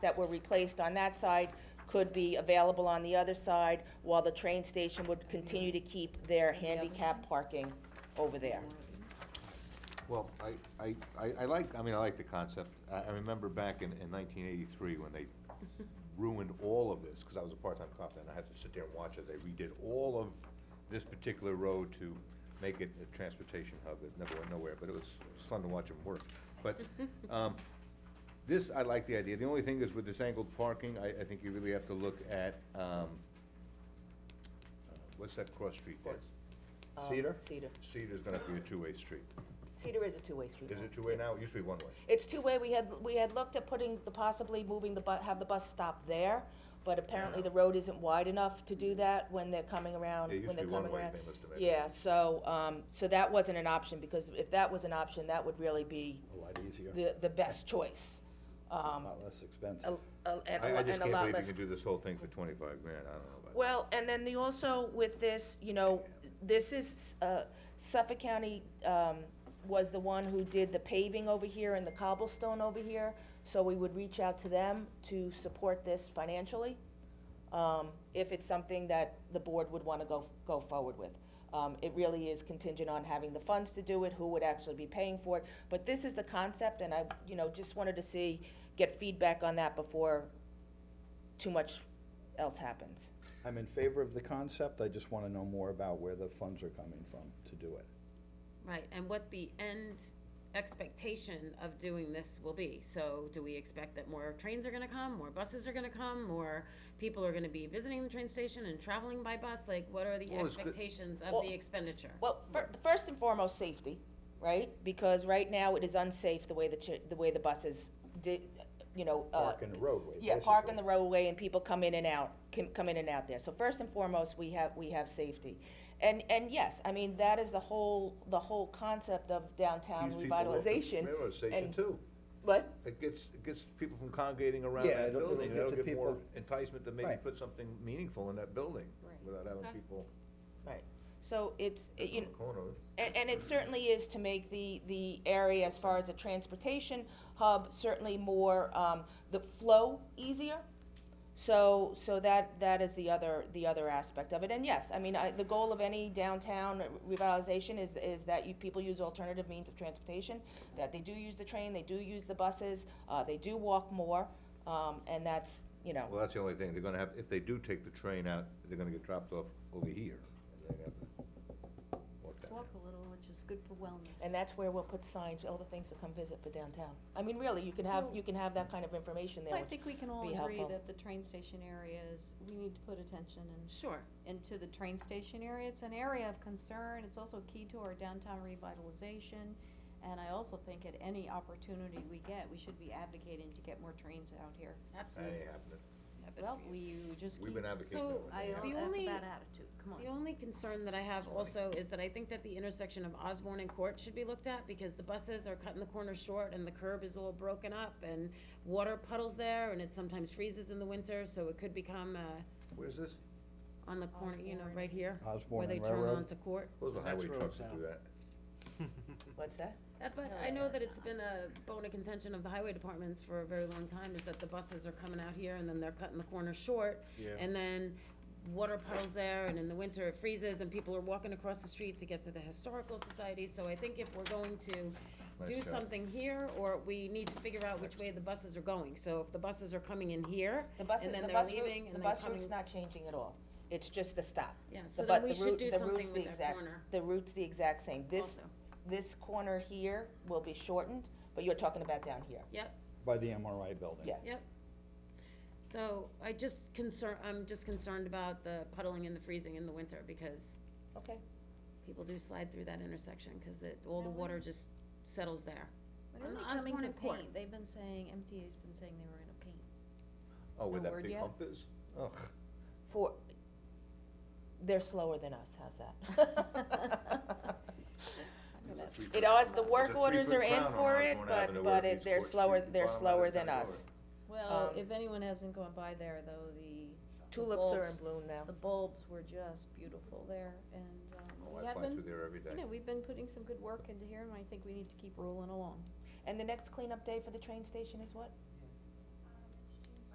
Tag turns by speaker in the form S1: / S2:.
S1: that were replaced on that side could be available on the other side, while the train station would continue to keep their handicap parking over there.
S2: Well, I, I, I, I like, I mean, I like the concept. I, I remember back in, in nineteen eighty-three when they ruined all of this, cause I was a part-time cop and I had to sit there and watch it. They redid all of this particular road to make it a transportation hub. It never went nowhere, but it was, it was fun to watch them work. But, um, this, I like the idea. The only thing is with this angled parking, I, I think you really have to look at, um, uh, what's that cross street there?
S1: Um,
S2: Cedar?
S1: Cedar.
S2: Cedar's gonna be a two-way street.
S1: Cedar is a two-way street.
S2: Is
S1: now.
S2: it two-way now? It used to be one-way.
S1: It's two-way, we had, we had looked at putting, the possibly moving the bu, have the bus stop there, but apparently the road isn't wide enough to do that when they're coming around,
S2: It used
S1: when
S2: to
S1: they're
S2: be
S1: coming
S2: one-way,
S1: around.
S2: they must have made it.
S1: Yeah, so, um, so that wasn't an option, because if that was an option, that would really be
S3: A lot easier,
S1: the, the best choice.
S3: a
S1: Um,
S3: lot less
S1: a-
S3: expensive.
S1: a- and a
S2: I, I
S1: lot,
S2: just
S1: and a
S2: can't
S1: lot
S2: believe you
S1: less
S2: can do this whole thing for twenty-five grand, I don't know about that.
S1: Well, and then the also with this, you know, this is, uh, Suffolk County, um, was the one who did the paving over here and the cobblestone over here, so we would reach out to them to support this financially, um, if it's something that the board would wanna go, go forward with. Um, it really is contingent on having the funds to do it, who would actually be paying for it, but this is the concept, and I, you know, just wanted to see, get feedback on that before too much else happens.
S3: I'm in favor of the concept, I just wanna know more about where the funds are coming from to do it.
S4: Right, and what the end expectation of doing this will be. So do we expect that more trains are gonna come, more buses are gonna come, more people are gonna be visiting the train station and traveling by bus? Like, what are the
S2: Well, it's good-
S4: expectations
S1: Well-
S4: of the expenditure?
S1: Well, fir- first and foremost, safety, right? Because right now it is unsafe the way the, chi- the way the buses di you know, uh.
S3: Park in the roadway,
S1: Yeah, park in the
S3: basically.
S1: roadway and people come in and out, can, come in and out there. So first and foremost, we have, we have safety. And, and yes, I mean, that is the whole, the whole concept of downtown
S2: These people off the
S1: revitalization.
S2: Railroad station
S1: and-
S2: too.
S1: But,
S2: It gets, it gets people from congregating around
S3: Yeah,
S2: that
S3: it'll- it'll
S2: building,
S3: get
S2: that'll
S3: the
S2: get more
S3: people-
S2: enticement to maybe
S3: Right.
S2: put something meaningful in that building,
S4: Right.
S2: without having
S4: Okay.
S2: people
S1: right, so it's, it- you
S2: on
S1: know.
S2: the corner.
S1: And, and it certainly is to make the, the area, as far as a transportation hub, certainly more, um, the flow easier. So, so that, that is the other, the other aspect of it. And yes, I mean, I, the goal of any downtown revitalization is, is that you, people use alternative means of transportation, that they do use the train, they do use the buses, uh, they do walk more, um, and that's, you know,
S2: Well, that's the only thing, they're gonna have, if they do take the train out, they're gonna get dropped off over here, and they're gonna have to walk down.
S5: Walk a little, which is good for wellness.
S1: and that's where we'll put signs, all the things to come visit for downtown. I mean, really, you can have,
S5: So-
S1: you can have that kind of information there,
S5: I
S1: which-
S5: think we can all
S1: be
S5: agree
S1: helpful.
S5: that the train station area is, we need to put attention and,
S4: Sure,
S5: into the train station area. It's an area of concern, it's also key to our downtown revitalization. And I also think at any opportunity we get, we should be advocating to get more trains out here.
S2: That ain't
S4: absolutely.
S2: happening,
S4: Yeah, but
S5: Well,
S4: if you-
S5: we just keep.
S2: we've been advocating
S4: So,
S2: that. one,
S5: I,
S2: yeah.
S5: that's
S4: The
S5: a
S4: only-
S5: bad attitude, come on.
S4: The only concern that I have also is that I think that the intersection of Osborne and Court should be looked at, because the buses are cutting the corner short, and the curb is all broken up, and water puddles there, and it sometimes freezes in the winter, so it could become, uh,
S2: Where's this?
S4: on the corner, you know, right here.
S3: Osborne and
S4: Where they turn
S3: Railroad.
S4: onto Court.
S2: Those are
S3: That's
S2: highway
S3: where
S2: trucks
S3: it's
S2: that
S3: at.
S2: do that.
S1: What's that?
S4: Uh, But I know that it's been a bone of contention of the highway departments for a very long time, is that the buses are coming out here and then they're cutting the corner short. And then water puddles there, and in the winter it freezes, and people are walking across the street to get to the historical society. So I think if we're going to
S2: Nice
S4: do
S2: job.
S4: something here, or we need to figure out which way the buses are going. So if the buses are coming in here,
S1: The bus,
S4: and then
S1: the
S4: they're
S1: bus route-
S4: leaving,
S1: the
S4: and then
S1: bus
S4: coming.
S1: route's not changing at all. It's just the stop.
S4: Yeah,
S1: The
S4: so
S1: bu-
S4: then
S1: the
S4: we should
S1: route- the
S4: do something
S1: route's the
S4: with that
S1: exact-
S4: corner.
S1: The route's the exact same. This,
S4: Also.
S1: this corner here will be shortened, but you're talking about down here.
S4: Yep.
S3: By the MRI building.
S1: Yeah.
S4: Yep. So I just concern, I'm just concerned about the puddling and the freezing in the winter because
S1: Okay,
S4: people do slide through that intersection because it, all the water just settles there.
S5: When are
S4: On
S5: they
S4: the
S5: coming
S4: Osborne
S5: to
S4: and Court.
S5: paint? They've been saying, MTA's been saying they were gonna paint.
S2: Oh, where
S5: No
S2: that
S5: word
S2: big
S5: yet?
S2: hump is? Ugh.
S1: for, they're slower than us, how's that? It always, the work
S2: There's a
S1: orders are
S2: three-foot
S1: in
S2: crown on
S1: for
S2: Osborne
S1: it, but,
S2: Avenue
S1: but
S2: where it
S1: it,
S2: meets
S1: they're
S2: Court
S1: slower,
S2: Street,
S1: they're
S2: bottom
S1: slower
S2: left-hand
S1: than us.
S5: Well,
S1: Um,
S5: if anyone hasn't gone by there though, the the
S1: Tulips are in
S5: bulbs-
S1: bloom now.
S5: The bulbs were just beautiful there, and, um,
S2: Oh,
S5: we
S2: I
S5: have
S2: fly through
S5: been,
S2: there every day.
S5: you know, we've been putting some good work into here, and I think we need to keep rolling along.
S1: And the next cleanup day for the train station is what?